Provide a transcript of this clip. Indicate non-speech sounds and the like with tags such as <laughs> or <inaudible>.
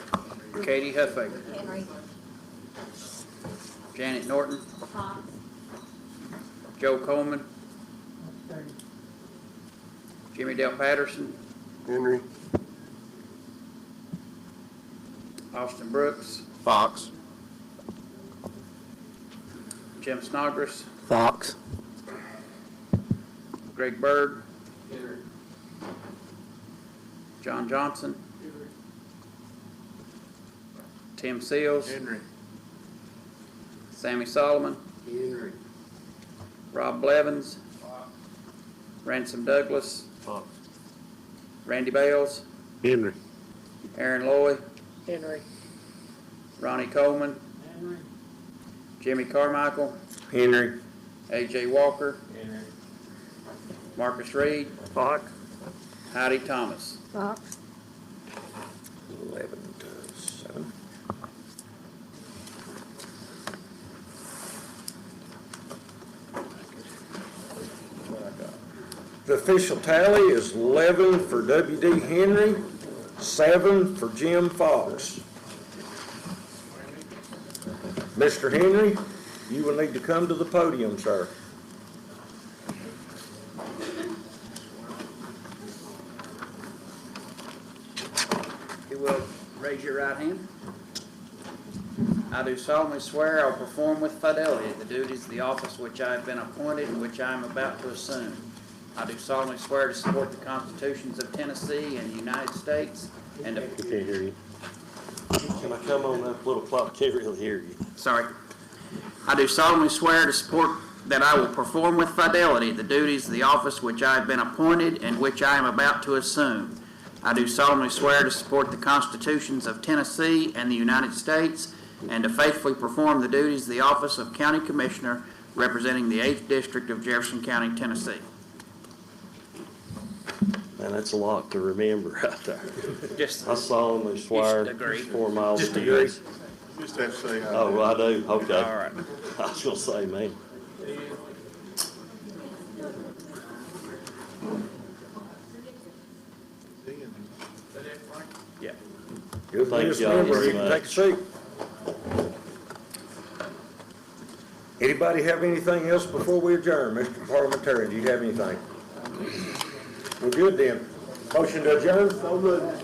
Katie Huffaker, Henry. Janet Norton, Fox. Joe Coleman, Jimmy Dale Patterson, Henry. Austin Brooks, Fox. Jim Snodgrass, Fox. Greg Bird, John Johnson, Tim Seals, Henry. Sammy Solomon, Henry. Rob Blevins, Ransom Douglas, Fox. Randy Bales, Henry. Aaron Loy, Henry. Ronnie Coleman, Jimmy Carmichael, Henry. AJ Walker, Marcus Reed, Fox. Heidi Thomas. Fox. Eleven to seven. The official tally is eleven for W.D. Henry, seven for Jim Fox. Mr. Henry, you will need to come to the podium, sir. You will raise your right hand. I do solemnly swear I will perform with fidelity the duties of the office which I have been appointed and which I am about to assume. I do solemnly swear to support the constitutions of Tennessee and the United States and to I can't hear you. Can I come on that little clock? Can't really hear you. Sorry. I do solemnly swear to support that I will perform with fidelity the duties of the office which I have been appointed and which I am about to assume. I do solemnly swear to support the constitutions of Tennessee and the United States and to faithfully perform the duties of the office of County Commissioner representing the 8th District of Jefferson County, Tennessee. Man, that's a lot to remember right there. Just, I solemnly You swear, should agree. four miles Just of agree. this. Just have to say Oh, I do, all okay. right. <laughs> I was gonna say, man. Yeah. Good Thank list, y'all member. very You can much. take a seat. Anybody have anything else before we adjourn? Mr. Parliamentarian, do you have anything? We're good then. Motion to adjourn?